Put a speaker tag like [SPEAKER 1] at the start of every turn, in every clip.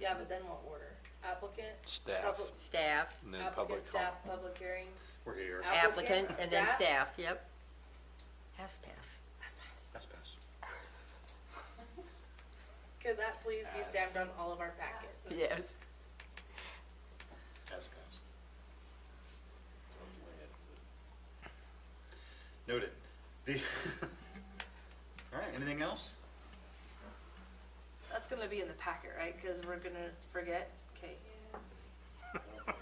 [SPEAKER 1] Yeah, but then what order? Applicant?
[SPEAKER 2] staff,
[SPEAKER 1] public-
[SPEAKER 3] Staff,
[SPEAKER 2] and then public
[SPEAKER 1] Applicant,
[SPEAKER 2] comment.
[SPEAKER 1] staff, public hearing,
[SPEAKER 4] We're here.
[SPEAKER 3] applicant, and then staff, yep. Pass, pass.
[SPEAKER 1] That's nice.
[SPEAKER 4] That's best.
[SPEAKER 1] Could that please be stamped on all of our packets?
[SPEAKER 3] Yes.
[SPEAKER 4] That's best. Noted. The, all right, anything else?
[SPEAKER 1] That's gonna be in the packet, right? Cause we're gonna forget. Okay.
[SPEAKER 4] It's a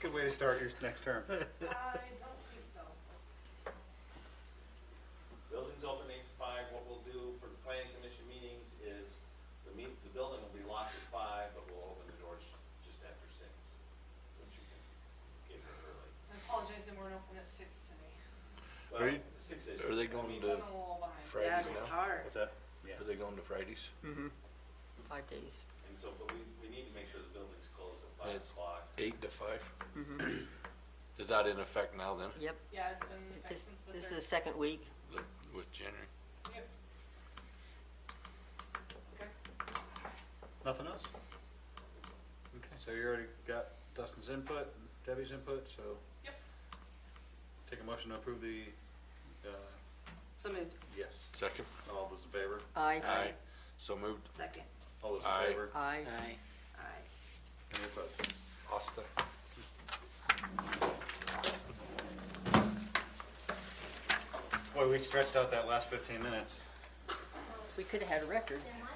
[SPEAKER 4] good way to start your next term.
[SPEAKER 5] Building's open eight to five, what we'll do for the planning commission meetings is, the meet, the building will be locked at five, but we'll open the doors just after six. So that you can get here early.
[SPEAKER 6] I apologize, they weren't open at six today.
[SPEAKER 2] Are you-
[SPEAKER 5] Well, six is.
[SPEAKER 2] are they
[SPEAKER 5] I
[SPEAKER 2] going
[SPEAKER 5] mean,
[SPEAKER 2] to-
[SPEAKER 6] I'm a little behind.
[SPEAKER 1] Yeah,
[SPEAKER 2] Fridays
[SPEAKER 1] it's
[SPEAKER 2] now?
[SPEAKER 1] hard.
[SPEAKER 4] that? Yeah.
[SPEAKER 2] Are they going to Fridays?
[SPEAKER 3] Five days.
[SPEAKER 5] And so, but we, we need to make sure the building's closed at
[SPEAKER 2] And
[SPEAKER 5] five
[SPEAKER 2] it's-
[SPEAKER 5] o'clock.
[SPEAKER 2] Eight to five? Is that in effect now then,
[SPEAKER 3] Yep.
[SPEAKER 6] Yeah, it's been in effect
[SPEAKER 3] This,
[SPEAKER 6] since the
[SPEAKER 3] this is the
[SPEAKER 6] third.
[SPEAKER 3] second week.
[SPEAKER 2] li- with January?
[SPEAKER 6] Yep. Okay.
[SPEAKER 4] Nothing else? Okay, so you already got Dustin's input, Debbie's input, so
[SPEAKER 6] Yep.
[SPEAKER 4] take a motion to approve the, uh,
[SPEAKER 1] So moved.
[SPEAKER 4] yes.
[SPEAKER 2] Second?
[SPEAKER 4] All those in favor?
[SPEAKER 3] Aye.
[SPEAKER 1] Aye.
[SPEAKER 2] So moved.
[SPEAKER 1] Second.
[SPEAKER 4] All those
[SPEAKER 2] Aye.
[SPEAKER 4] in favor?
[SPEAKER 3] Aye.
[SPEAKER 1] Aye.
[SPEAKER 4] Any opposed?
[SPEAKER 2] Asta.
[SPEAKER 4] Boy, we stretched out that last fifteen minutes.
[SPEAKER 3] We could have had a record.